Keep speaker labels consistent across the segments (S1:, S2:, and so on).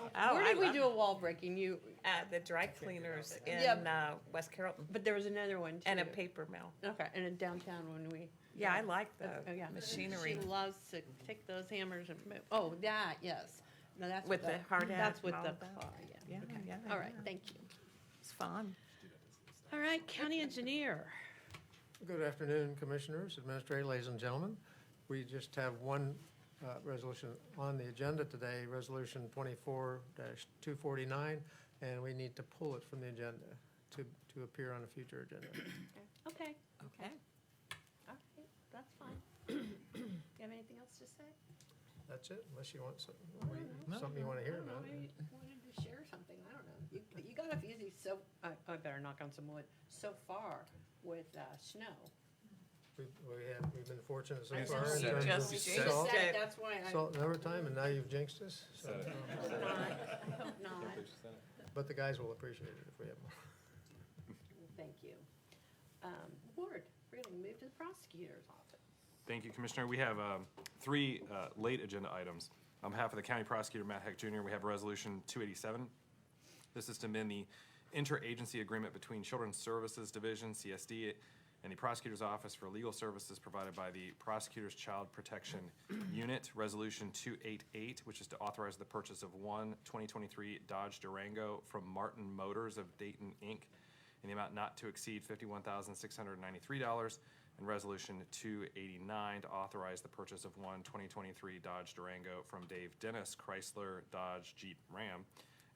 S1: did we
S2: Oh, love
S1: do a wall breaking? You,
S2: At the dry cleaners in
S1: Yeah.
S2: uh, West Carrollton
S1: but there was another one too.
S2: and a paper mill.
S1: Okay, and a downtown when we.
S2: Yeah, I like the
S1: Oh, yeah.
S2: machinery.
S1: She loves to take those hammers and, move- oh, that, yes. No, that's
S2: With
S1: what
S2: the hard hat
S1: That's
S2: and
S1: with
S2: all
S1: the
S2: of that.
S1: car, yeah.
S2: Yeah,
S1: Okay.
S2: yeah,
S1: All right,
S2: yeah.
S1: thank you.
S2: It's fun.
S1: All right, county engineer.
S3: Good afternoon, Commissioners, Administrator, ladies and gentlemen. We just have one uh, resolution on the agenda today, Resolution 24-249, and we need to pull it from the agenda to to appear on a future agenda.
S1: Okay,
S2: Okay.
S1: all right, that's fine. You have anything else to say?
S3: That's it, unless you want some-
S1: I don't know.
S3: something you want to
S1: I
S3: hear
S1: don't know,
S3: about.
S1: maybe you Wanted to share something, I don't know. You, you got off easy so, I, I better knock on some wood, so far with, uh, snow.
S3: We've we have- we've been fortunate so
S4: I
S3: far. in
S4: said
S3: terms
S4: you
S3: of
S4: just
S3: salt-
S4: jinxed
S1: Said
S2: it.
S1: That's why I,
S3: Salt and overtime, and now you've jinxed us. so-
S4: So-
S1: hope not, I hope not.
S3: But the guys will appreciate it if we have more.
S1: Thank you. Um, Ward, we're going to move to the prosecutor's office.
S4: Thank you, Commissioner. We have um, three uh, late agenda items. On behalf of the County Prosecutor Matt Heck Jr., we have Resolution 287. This is to amend the interagency agreement between Children's Services Division, CSD, and the Prosecutor's Office for Legal Services provided by the Prosecutor's Child Protection Unit. Resolution 288, which is to authorize the purchase of one 2023 Dodge Durango from Martin Motors of Dayton, Inc., in the amount not to exceed $51,693. And Resolution 289 to authorize the purchase of one 2023 Dodge Durango from Dave Dennis Chrysler Dodge Jeep Ram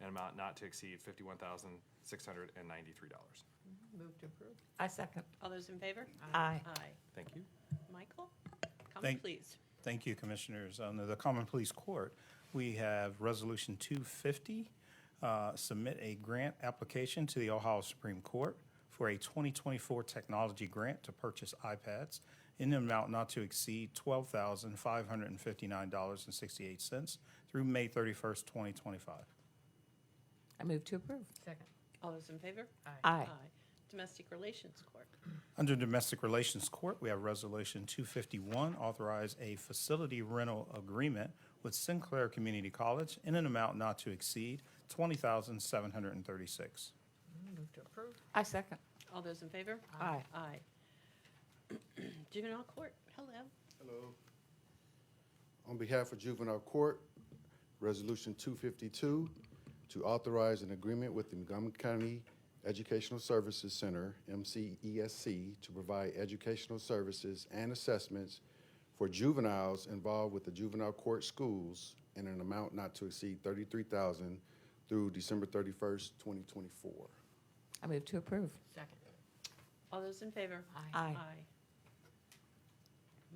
S4: an amount not to exceed fifty-one thousand, six hundred and ninety-three dollars.
S1: Move to approve.
S2: I second.
S1: All those in favor?
S2: Aye.
S1: Aye.
S4: Thank you.
S1: Michael, comment
S5: Thank-
S1: please.
S5: Thank you, Commissioners. Under the Common Police Court, we have Resolution 250, uh, submit a grant application to the Ohio Supreme Court for a 2024 technology grant to purchase iPads in an amount not to exceed $12,559.68 through May 31st, 2025.
S6: I move to approve.
S7: Second.
S1: All those in favor?
S6: Aye.
S1: Domestic Relations Court.
S5: Under Domestic Relations Court, we have Resolution 251, authorize a facility rental agreement with Sinclair Community College in an amount not to exceed 20736
S7: Move to approve.
S6: I second.
S1: All those in favor?
S6: Aye.
S1: Aye. Juvenile Court, hello.
S8: Hello. On behalf of Juvenile Court, Resolution 252, to authorize an agreement with the Montgomery County Educational Services Center, MCESC, to provide educational services and assessments for juveniles involved with the juvenile court schools in an amount not to exceed 33000 through December 31st, 2024.
S6: I move to approve.
S7: Second.
S1: All those in favor?
S7: Aye.
S6: Aye.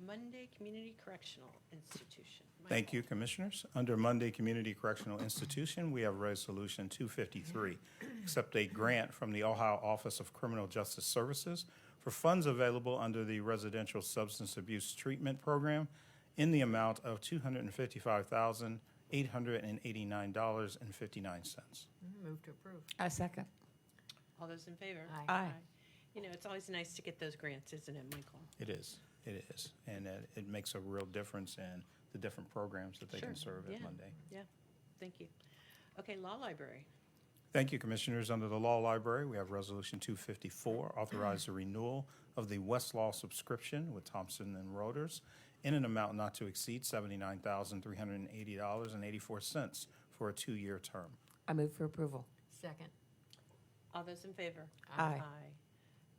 S1: Monday Community Correctional Institution.
S5: Thank you, Commissioners. Under Monday Community Correctional Institution, we have Resolution 253, accept a grant from the Ohio Office of Criminal Justice Services for funds available under the Residential Substance Abuse Treatment Program in the amount of $255,889.59.
S7: Move to approve.
S6: I second.
S1: All those in favor?
S7: Aye.
S6: Aye.
S1: You know, it's always nice to get those grants, isn't it, Michael?
S5: It is, it is. And it it makes a real difference in the different programs that they can
S1: Sure,
S5: serve
S1: yeah.
S5: at Monday.
S1: Yeah, thank you. Okay, Law Library.
S5: Thank you, Commissioners. Under the Law Library, we have Resolution 254, authorize the renewal of the Westlaw subscription with Thompson and Reuters in an amount not to exceed $79,380.84 for a two-year term.
S6: I move for approval.
S7: Second.
S1: All those in favor?
S6: Aye.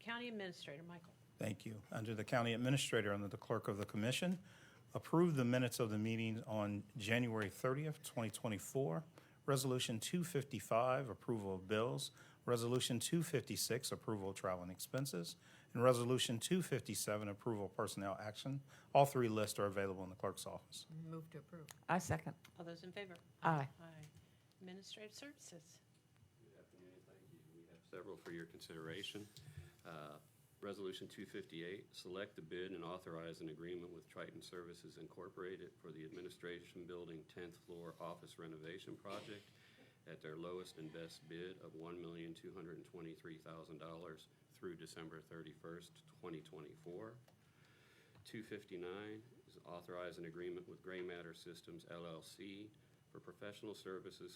S1: County Administrator, Michael.
S5: Thank you. Under the County Administrator, under the Clerk of the Commission, approve the minutes of the meeting on January 30th, 2024. Resolution 255, approval of bills. Resolution 256, approval of travel and expenses. And Resolution 257, approval of personnel action. All three lists are available in the clerk's office.
S7: Move to approve.
S6: I second.
S1: All those in favor?
S6: Aye.
S1: Aye. Administrative Services.
S9: Several for your consideration. Uh, Resolution 258, select the bid and authorize an agreement with Triton Services Incorporated for the Administration Building 10th Floor Office Renovation Project at their lowest and best bid of $1,223,000 through December 31st, 2024. 259 is authorize an agreement with Gray Matter Systems LLC for professional services